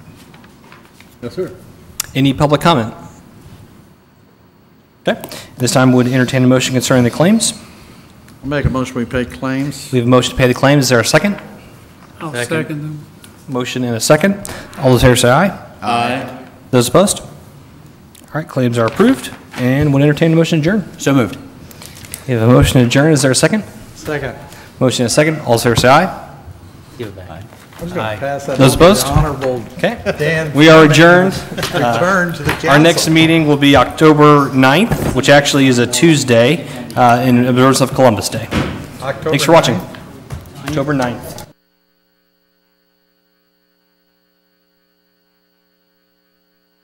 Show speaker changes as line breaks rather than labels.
Yes, sir.
Any public comment? Okay. At This time, would entertain a motion concerning the claims.
I'll make a motion, we pay claims.
We have a motion to pay the claims. Is there a second?
I'll second them.
Motion and a second. All those in favor say aye.
Aye.
Those opposed? All right, claims are approved, and would entertain a motion to adjourn.
So moved.
We have a motion to adjourn. Is there a second?
Second.
Motion and a second. All those in favor say aye.
I'm just going to pass that. on
Those
to the
opposed?
Honorable
Okay.
Dan.
We are adjourned.
Return to the council.
Our next meeting will be October 9th, which actually is a Tuesday, uh, in observance of Columbus Day. Thanks for watching. October 9th.